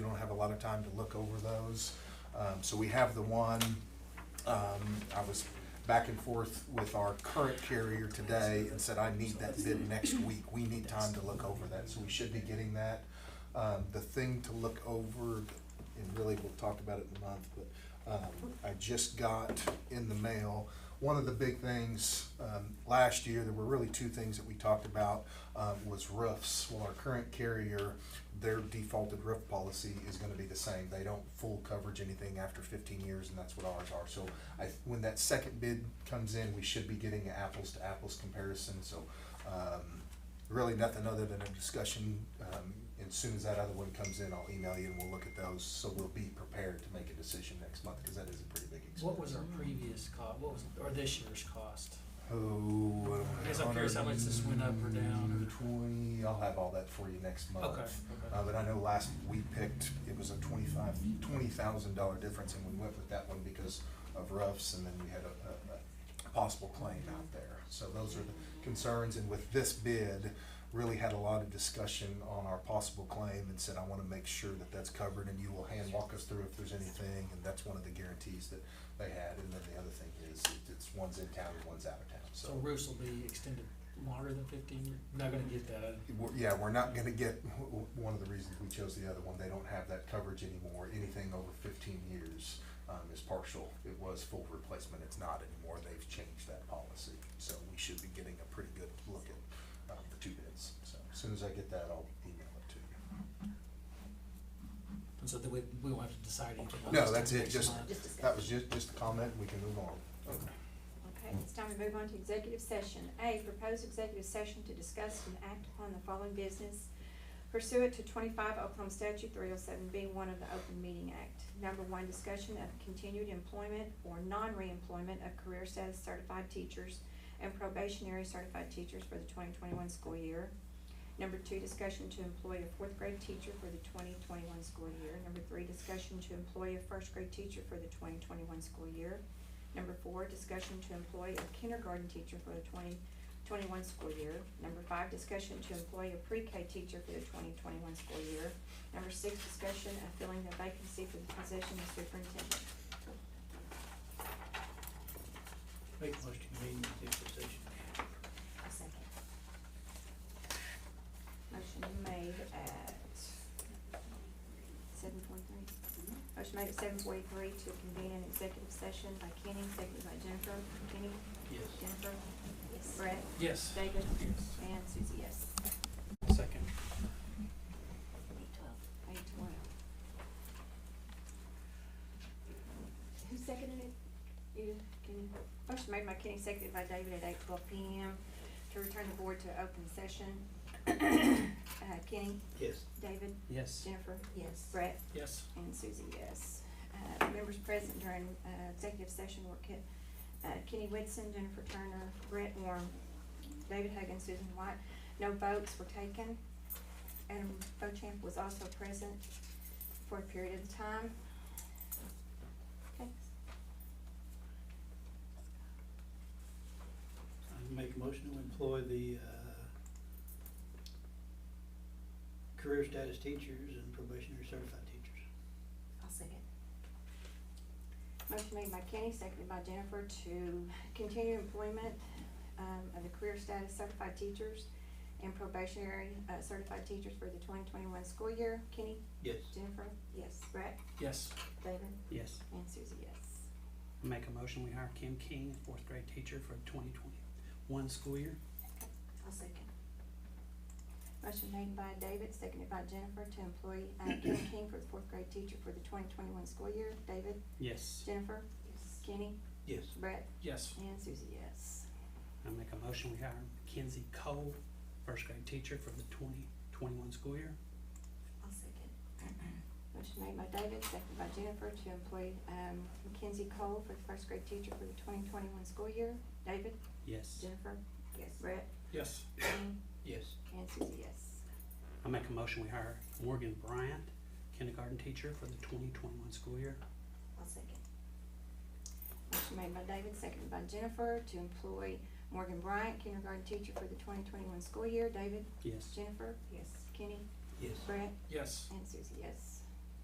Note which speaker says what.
Speaker 1: lot of time to look over those. Um, so we have the one, um, I was back and forth with our current carrier today and said, I need that bid next week. We need time to look over that, so we should be getting that. Um, the thing to look over, and really we'll talk about it in a month, but, um, I just got in the mail, one of the big things, um, last year, there were really two things that we talked about, um, was roofs. Well, our current carrier, their defaulted roof policy is gonna be the same. They don't full coverage anything after fifteen years, and that's what ours are. So I, when that second bid comes in, we should be getting an apples to apples comparison, so, um, really nothing other than a discussion. Um, and soon as that other one comes in, I'll email you and we'll look at those, so we'll be prepared to make a decision next month, because that is a pretty big expense.
Speaker 2: What was our previous cost, what was, or this year's cost?
Speaker 1: Oh.
Speaker 2: I guess I'm curious how much this went up or down or-
Speaker 1: Twenty, I'll have all that for you next month.
Speaker 2: Okay,
Speaker 1: Uh,
Speaker 2: okay.
Speaker 1: but I know last we picked, it was a twenty-five, twenty thousand dollar difference, and we went with that one because of roughs, and then we had a, a, a possible claim out there. So those are the concerns, and with this bid, really had a lot of discussion on our possible claim and said, I wanna make sure that that's covered, and you will hand walk us through if there's anything, and that's one of the guarantees that they had. And then the other thing is, it's one's in town and one's out of town,
Speaker 2: So roofs will be extended longer than fifteen years? Not gonna get that.
Speaker 1: We're- Yeah, we're not gonna get, w- w- one of the reasons we chose the other one, they don't have that coverage anymore. Anything over fifteen years um, is partial. It was full replacement, it's not anymore. They've changed that policy. So we should be getting a pretty good look at um, the two bids. So as soon as I get that, I'll email it to you.
Speaker 2: And so then we, we won't have to decide anything. on
Speaker 1: No,
Speaker 2: this till
Speaker 1: that's it,
Speaker 2: next
Speaker 1: just-
Speaker 2: month.
Speaker 3: Just discuss.
Speaker 1: That was just, just a comment, we can move on.
Speaker 3: Okay, it's time to move on to executive session. A, proposed executive session to discuss and act upon the following business pursuant to twenty-five Oklahoma statute three oh seven B one of the Open Meeting Act. Number one, discussion of continued employment or non-reemployment of career status certified teachers and probationary certified teachers for the twenty twenty-one school year. Number two, discussion to employ a fourth grade teacher for the twenty twenty-one school year. Number three, discussion to employ a first grade teacher for the twenty twenty-one school year. Number four, discussion to employ a kindergarten teacher for the twenty twenty-one school year. Number five, discussion to employ a pre-K teacher for the twenty twenty-one school year. Number six, discussion of filling the vacancy for the position of superintendent.
Speaker 4: Make the most convenient executive session.
Speaker 3: Second. Motion made at seven forty-three. Motion made at seven forty-three to convene an executive session by Kenny, seconded by Jennifer. Kenny?
Speaker 4: Yes.
Speaker 3: Jennifer? Yes. Brett?
Speaker 2: Yes,
Speaker 3: David? And Susie, yes.
Speaker 2: second.
Speaker 3: Eight twelve. Eight twelve. Who seconded it? You, Kenny? Motion made by Kenny, seconded by David at eight twelve P M. To return the board to open session. Uh, Kenny?
Speaker 4: Yes.
Speaker 3: David?
Speaker 2: Yes.
Speaker 3: Jennifer? Yes. Brett?
Speaker 2: Yes.
Speaker 3: And Susie, yes. Uh, members present during, uh, executive session were Ken, uh, Kenny Whitson, Jennifer Turner, Brett Warren, David Huggins, Susan White. No votes were taken. Adam Bochamp was also present for a period of time. Okay,
Speaker 4: I make a motion to employ the, uh, career status teachers and probationary certified teachers.
Speaker 3: I'll second. Motion made by Kenny, seconded by Jennifer to continue employment um, of the career status certified teachers and probationary uh, certified teachers for the twenty twenty-one school year. Kenny?
Speaker 4: Yes.
Speaker 3: Jennifer? Yes. Brett?
Speaker 2: Yes.
Speaker 3: David?
Speaker 5: Yes,
Speaker 3: And Susie, yes.
Speaker 5: make a motion, we hire Kim King, fourth grade teacher for twenty twenty-one school year.
Speaker 3: I'll second. Motion made by David, seconded by Jennifer to employ uh, Kenny King for the fourth grade teacher for the twenty twenty-one school year. David?
Speaker 5: Yes,
Speaker 3: Jennifer? Yes. Kenny?
Speaker 4: Yes.
Speaker 3: Brett?
Speaker 2: Yes.
Speaker 3: And Susie, yes.
Speaker 5: I make a motion, we hire Kenzie Cole, first grade teacher for the twenty twenty-one school year.
Speaker 3: I'll second. Motion made by David, seconded by Jennifer to employ um, Mackenzie Cole for the first grade teacher for the twenty twenty-one school year. David?
Speaker 5: Yes,
Speaker 3: Jennifer? Yes. Brett?
Speaker 2: Yes.
Speaker 3: Kenny?
Speaker 4: Yes.
Speaker 3: And Susie, yes.
Speaker 5: I make a motion, we hire Morgan Bryant, kindergarten teacher for the twenty twenty-one school year.
Speaker 3: I'll second. Motion made by David, seconded by Jennifer to employ Morgan Bryant, kindergarten teacher for the twenty twenty-one school year. David?
Speaker 5: Yes,
Speaker 3: Jennifer? Yes. Kenny?
Speaker 4: Yes.
Speaker 3: Brett?
Speaker 2: Yes.
Speaker 3: And Susie, yes.